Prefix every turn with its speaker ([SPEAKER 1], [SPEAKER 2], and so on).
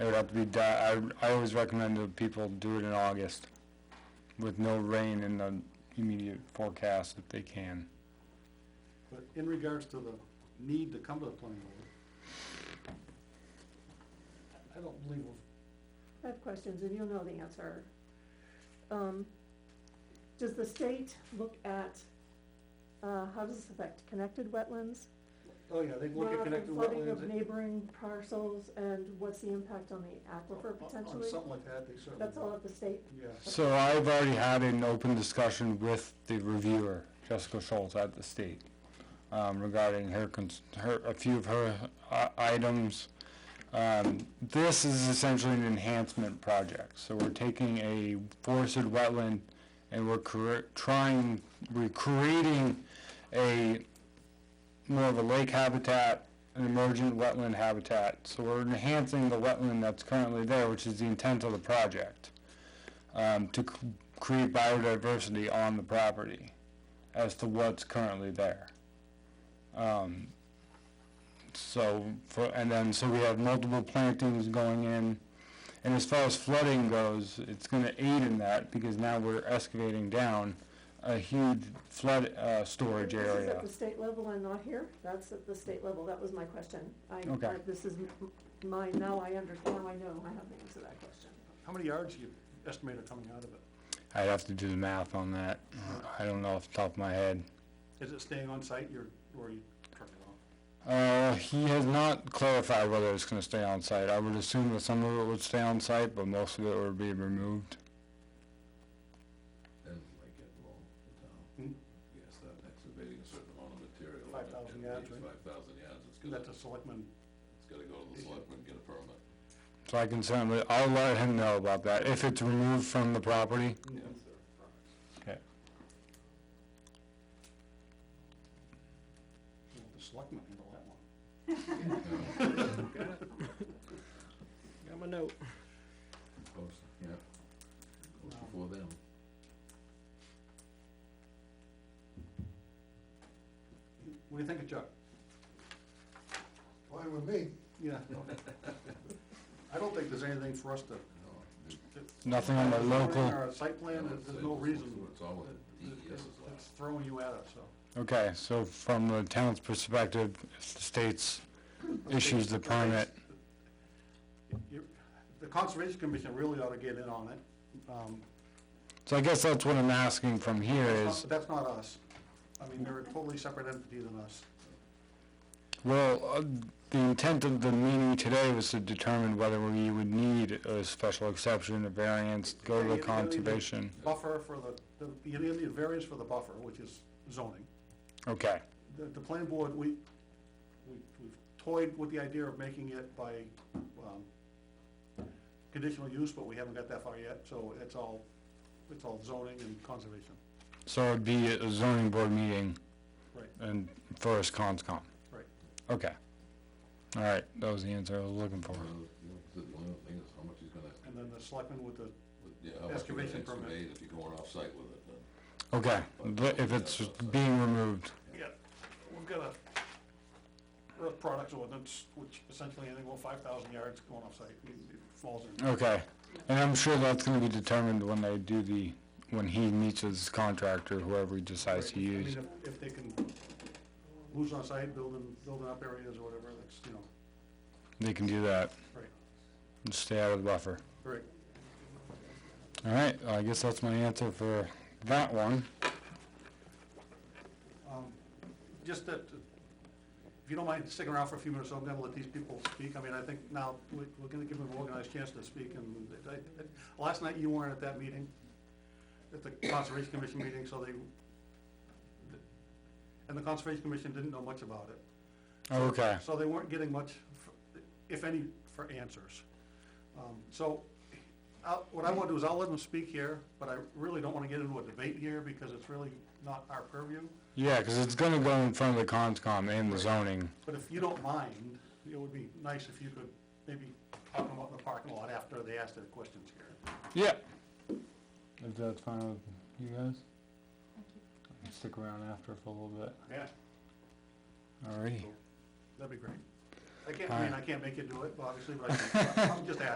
[SPEAKER 1] It would have to be, di- I, I always recommend that people do it in August with no rain in the immediate forecast if they can.
[SPEAKER 2] But in regards to the need to come to the planning board, I- I don't believe, we've-
[SPEAKER 3] I have questions, and you'll know the answer. Um, Does the state look at, uh, how does this affect connected wetlands?
[SPEAKER 2] oh yeah, they look
[SPEAKER 3] runoff
[SPEAKER 2] at
[SPEAKER 3] and
[SPEAKER 2] connected
[SPEAKER 3] Flooding of
[SPEAKER 2] wetlands.
[SPEAKER 3] neighboring parcels, and what's the impact on the
[SPEAKER 2] on-
[SPEAKER 3] aquifer
[SPEAKER 2] On
[SPEAKER 3] potentially?
[SPEAKER 2] something like that, they certainly.
[SPEAKER 3] That's all at the state,
[SPEAKER 2] Yeah,
[SPEAKER 1] So I've already had an open discussion with the reviewer, Jessica Schultz at the state, um, regarding her, cons- her, a few of her uh, items. Um, this is essentially an enhancement project, so we're taking a forested wetland and we're cre- trying, we're creating a more of a lake habitat, an emergent wetland habitat. So we're enhancing the wetland that's currently there, which is the intent of the project um, to c- create biodiversity on the property as to what's currently there. Um, so, for, and then, so we have multiple plantings going in. And as far as flooding goes, it's gonna aid in that because now we're excavating down a huge flood, uh, storage
[SPEAKER 3] This is at
[SPEAKER 1] area.
[SPEAKER 3] the state level and not here? That's at the state level, that was my question. I,
[SPEAKER 1] Okay.
[SPEAKER 3] I- this is m- mine, now I understand, now I know, I have the answer to that question.
[SPEAKER 2] how many yards you estimate are coming out of it?
[SPEAKER 1] I'd have to do the math on that. I don't know off the top of my head.
[SPEAKER 2] Is it staying on site, you're, or you turn it off?
[SPEAKER 1] Uh, he has not clarified whether it's gonna stay on site. I would assume that some of it would stay on site, but most of it would be removed.
[SPEAKER 4] And like it wrong, the
[SPEAKER 2] Hmm?
[SPEAKER 4] town, you gotta start excavating a certain amount of material.
[SPEAKER 2] 5,000 yards, right?
[SPEAKER 4] Five thousand yards, it's gonna,
[SPEAKER 2] That's a selectman,
[SPEAKER 4] it's gonna go to the selectmen, get a permit.
[SPEAKER 1] So I can certainly, I'll let him know about that, if it's removed from the property.
[SPEAKER 4] Yes, sir.
[SPEAKER 1] Okay.
[SPEAKER 2] well, the selectman handle that one.
[SPEAKER 5] Got my note.
[SPEAKER 4] Goes, yeah, goes
[SPEAKER 2] Wow.
[SPEAKER 4] before them.
[SPEAKER 2] What do you think of Chuck?
[SPEAKER 6] Fine with me.
[SPEAKER 2] Yeah. okay. I don't think there's anything for us to.
[SPEAKER 4] No,
[SPEAKER 1] Nothing on the local,
[SPEAKER 2] Our site plan,
[SPEAKER 4] no,
[SPEAKER 2] there's there's
[SPEAKER 4] it's-
[SPEAKER 2] no
[SPEAKER 4] it's- uh,
[SPEAKER 2] reason,
[SPEAKER 4] It's all what
[SPEAKER 2] it- it-
[SPEAKER 4] DES is like.
[SPEAKER 2] it's throwing you at it, so.
[SPEAKER 1] okay, so from the town's perspective, if the state's issues the permit,
[SPEAKER 2] You- The Conservation Commission really ought to get in on it. Um,
[SPEAKER 1] so I guess that's what I'm asking from here
[SPEAKER 2] that's
[SPEAKER 1] is,
[SPEAKER 2] not- That's not us. I mean, they're a totally separate entity than us.
[SPEAKER 1] well, uh, the intent of the meeting today was to determine whether we would need a special exception, a variance, go to
[SPEAKER 2] You-
[SPEAKER 1] the
[SPEAKER 2] you gotta leave it-
[SPEAKER 1] conservation.
[SPEAKER 2] Buffer for the, the- you need the variance for the buffer, which is zoning.
[SPEAKER 1] Okay,
[SPEAKER 2] The, the planning board, we, we- we've toyed with the idea of making it by, um, conditional use, but we haven't got that far yet, so it's all, it's all zoning and conservation.
[SPEAKER 1] so it'd be a zoning board meeting
[SPEAKER 2] Right.
[SPEAKER 1] and first conscom.
[SPEAKER 2] Right.
[SPEAKER 1] Okay. All right, that was the answer I was looking for.
[SPEAKER 4] Well, you know, The the only thing is how much he's gonna,
[SPEAKER 2] And then the selectmen with the,
[SPEAKER 4] with- yeah, how much you're gonna
[SPEAKER 2] Excavation permit.
[SPEAKER 4] excavate if you're going off-site with it, then.
[SPEAKER 1] Okay, but if it's being removed,
[SPEAKER 2] yeah, we've got a earth products ordinance, which essentially anything over five thousand yards going off site, it falls in.
[SPEAKER 1] okay. And I'm sure that's gonna be determined when they do the, when he meets with his contractor, whoever he decides to
[SPEAKER 2] I mean,
[SPEAKER 1] use.
[SPEAKER 2] if- If they can lose on site, building, building up areas or whatever, that's, you know,
[SPEAKER 1] They can do that.
[SPEAKER 2] Right.
[SPEAKER 1] And stay out of the buffer.
[SPEAKER 2] right.
[SPEAKER 1] All right, I guess that's my answer for that one.
[SPEAKER 2] Um, Just that, uh, if you don't mind sticking around for a few minutes, I'm gonna let these people speak. I mean, I think now, we- we're gonna give them an organized chance to speak, and I- I- last night you weren't at that meeting, at the Conservation Commission meeting, so they, and the Conservation Commission didn't know much about it.
[SPEAKER 1] Okay,
[SPEAKER 2] So they weren't getting much, f- if any, for answers. Um, So, I'll- what I want to do is I'll let them speak here, but I really don't want to get into a debate here, because it's really not our purview.
[SPEAKER 1] yeah, cause it's gonna go in front of the conscom and the zoning.
[SPEAKER 2] But if you don't mind, it would be nice if you could maybe talk about the parking lot after they ask their questions here.
[SPEAKER 1] Yeah. If that's fine with you guys? Stick around after for a little bit.
[SPEAKER 2] Yeah,
[SPEAKER 1] Alrighty.
[SPEAKER 2] that'd be great. I can't, I mean, I can't make you do it, obviously, but I can, I'm just asking.